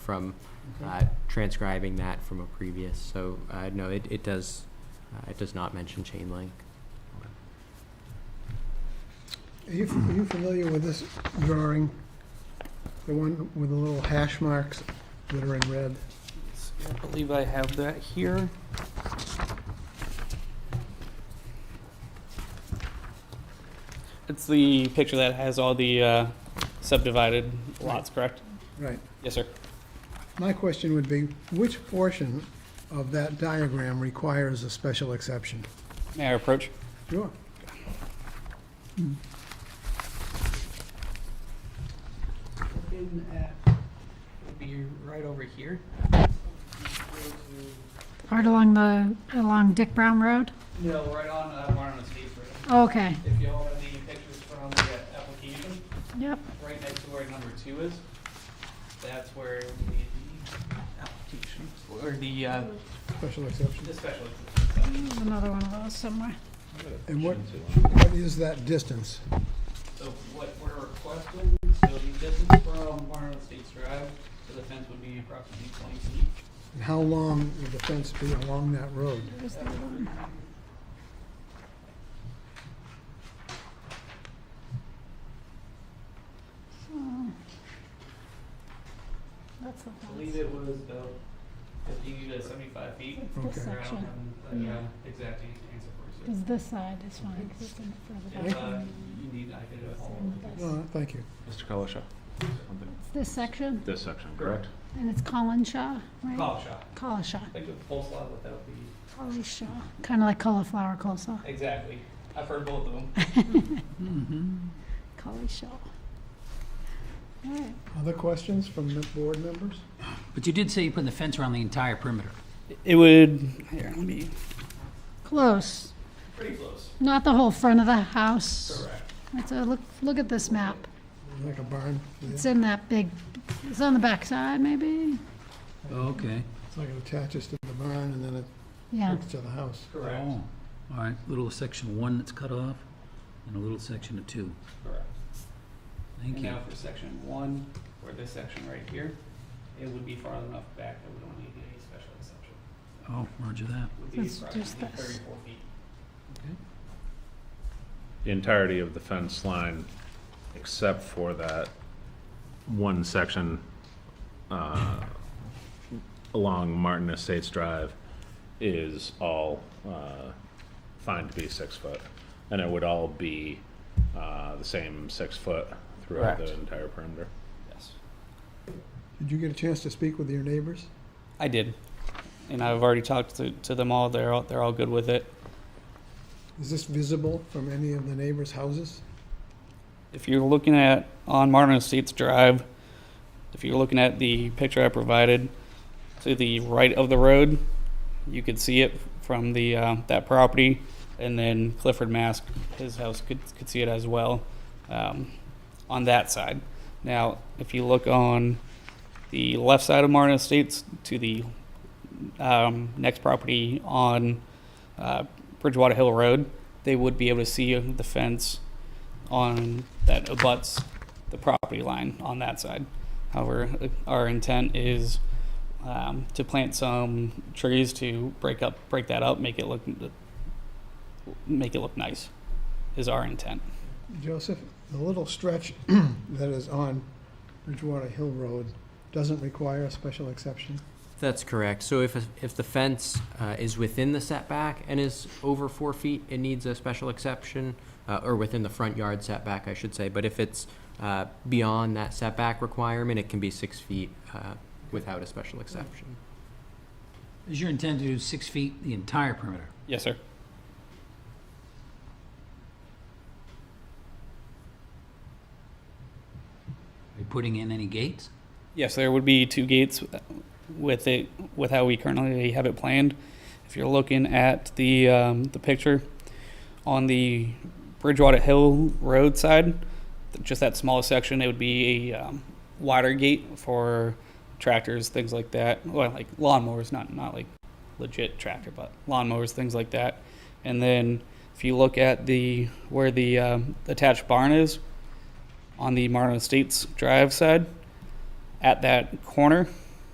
from uh, transcribing that from a previous, so, uh, no, it, it does, uh, it does not mention chain link. Are you, are you familiar with this drawing? The one with the little hash marks that are in red? I believe I have that here. It's the picture that has all the uh, subdivided lots, correct? Right. Yes, sir. My question would be, which portion of that diagram requires a special exception? May I approach? Sure. Looking at, would be right over here. Right along the, along Dick Brown Road? No, right on, uh, Barnum Estates Road. Okay, If you all have the pictures from the uh, application, yep, right next to where number two is, that's where the application, or the, uh, Special exception. the special. there's another one of those somewhere. And what, what is that distance? So what we're requesting, so the distance from Barnum Estates Drive to the fence would be approximately twenty feet. And how long would the fence be along that road? There's the other one. So, That's the I believe one. it was about fifty to seventy-five feet. Okay. This I don't section, have the, uh, exact answer for you. because this side is fine, 'cause it's in further If back. uh, you need, I could. uh, than Uh, this. thank you. Mr. Kalasha? It's This section, This section, correct? and it's Colin Shaw, right? Call shot. Collishaw, Like the coleslaw without the. Collishaw, kind of like cauliflower coleslaw. Exactly. I've heard both of them. Collie Show. All right. Other questions from the board members? But you did say you put the fence around the entire perimeter. It would, here, let me, Close, Pretty close. not the whole front of the house. Correct. It's a, look, look at this map. Like a barn? Yeah. It's in that big, it's on the backside, maybe? Okay. It's like it attaches to the barn and then it Yeah, hooks to the house. Correct. Oh, all right, little section one that's cut off, and a little section of two. Correct. Thank And you. now for section one, or this section right here, it would be far enough back that we don't need any special exception. Oh, roger that. It would be Let's do approximately this. thirty-four feet. The entirety of the fence line, except for that one section uh, along Martin Estates Drive, is all uh, fine to be six foot. And it would all be uh, the same six foot throughout the Correct. entire perimeter. yes. Did you get a chance to speak with your neighbors? I did. And I've already talked to, to them all. They're all, they're all good with it. Is this visible from any of the neighbors' houses? If you're looking at, on Martin Estates Drive, if you're looking at the picture I provided to the right of the road, you could see it from the, uh, that property. And then Clifford Mask, his house could, could see it as well, um, on that side. Now, if you look on the left side of Martin Estates to the, um, next property on, uh, Bridgewater Hill Road, they would be able to see the fence on that abuts the property line on that side. However, our intent is um, to plant some trees to break up, break that up, make it look, make it look nice. Is our intent? Joseph, the little stretch that is on Bridgewater Hill Road doesn't require a special exception? That's correct. So if, if the fence uh, is within the setback and is over four feet, it needs a special exception, uh, or within the front yard setback, I should say. But if it's uh, beyond that setback requirement, it can be six feet uh, without a special exception. Is your intent to do six feet the entire perimeter? Yes, sir. Are you putting in any gates? Yes, there would be two gates with it, with how we currently have it planned. If you're looking at the, um, the picture on the Bridgewater Hill Road side, just that small section, it would be a, um, wider gate for tractors, things like that. Well, like lawnmowers, not, not like legit tractor, but lawnmowers, things like that. And then if you look at the, where the, um, attached barn is on the Martin Estates Drive side, at that corner,